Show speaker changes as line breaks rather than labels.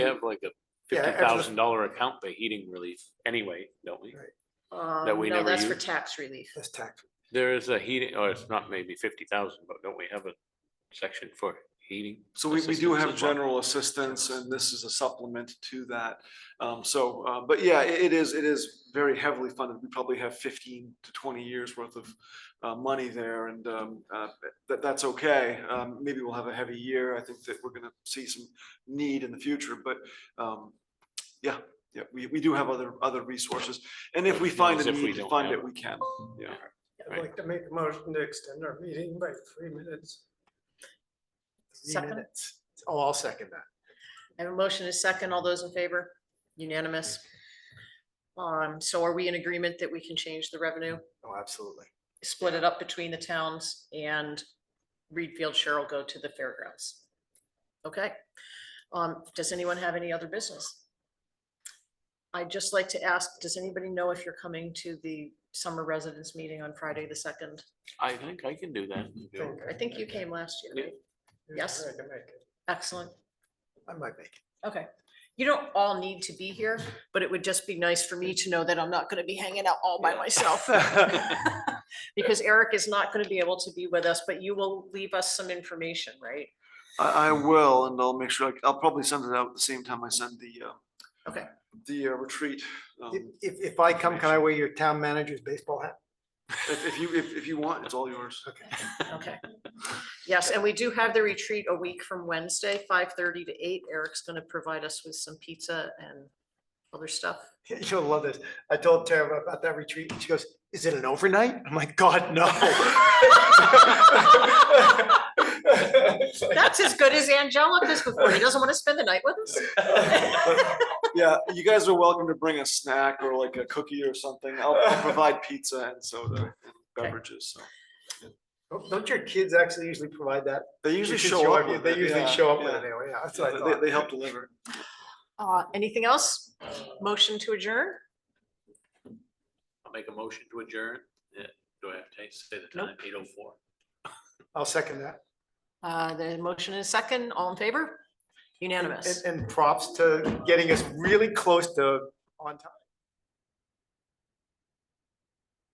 We have like a
Yeah,
fifty
extra-
thousand dollar account for heating relief anyway, don't we?
Right.
That
Um,
we
no,
never
that's for
use?
tax relief.
That's tax.
There is a heating, oh, it's not maybe fifty thousand, but don't we have a section for heating?
So we, we do
assistance
have
as well?
general assistance and this is a supplement to that. Um, so, uh, but yeah, it it is, it is very heavily funded. We probably have fifteen to twenty years worth of uh, money there and, um, uh, that, that's okay. Um, maybe we'll have a heavy year. I think that we're gonna see some need in the future, but, um, yeah, yeah, we, we do have other, other resources. And if we
As
find
long as
a
if we
need to
don't
fund
have
it, we can, yeah.
I'd like to make a motion to extend our meeting by three minutes. Three
Second.
minutes. Oh, I'll second that.
I have a motion and a second. All those in favor? Unanimous. Um, so are we in agreement that we can change the revenue,
Oh, absolutely.
split it up between the towns and Reed Field share will go to the fairgrounds? Okay. Um, does anyone have any other business? I'd just like to ask, does anybody know if you're coming to the summer residence meeting on Friday, the second?
I think I can do that.
I think you came last year. right? Yes.
I can make it.
Excellent.
I might make it.
Okay, you don't all need to be here, but it would just be nice for me to know that I'm not gonna be hanging out all by myself. Because Eric is not gonna be able to be with us, but you will leave us some information, right?
I, I will, and I'll make sure, I- I'll probably send it out at the same time I send the, uh,
Okay.
the uh, retreat. Um,
If- If, if I come, can I wear your town manager's baseball hat?
If, if you, if, if you want, it's all yours.
Okay.
Okay. Yes, and we do have the retreat a week from Wednesday, five thirty to eight. Eric's gonna provide us with some pizza and other stuff.
You'll love this. I told Tara about that retreat. and She goes, is it an overnight? I'm like, God, no. It's like-
That's as good as Angelica's before. He doesn't wanna spend the night with us?
Yeah, you guys are welcome to bring a snack or like a cookie or something. I'll, I'll provide pizza and soda and beverages, so.
Don't- Don't your kids actually usually provide that?
They
Your
usually
kids
show up
you-
with it.
They usually
yeah,
show up with
yeah.
it anyway. Yeah, that's
Yeah,
what I
They,
thought.
they help deliver.
Uh, anything else? Motion to adjourn?
I'll make a motion to adjourn. Yeah, Do I have to say the time? Eight oh four.
I'll second that.
Uh, the motion is second, all in favor?
And-
Unanimous.
And, and props to getting us really close to on time.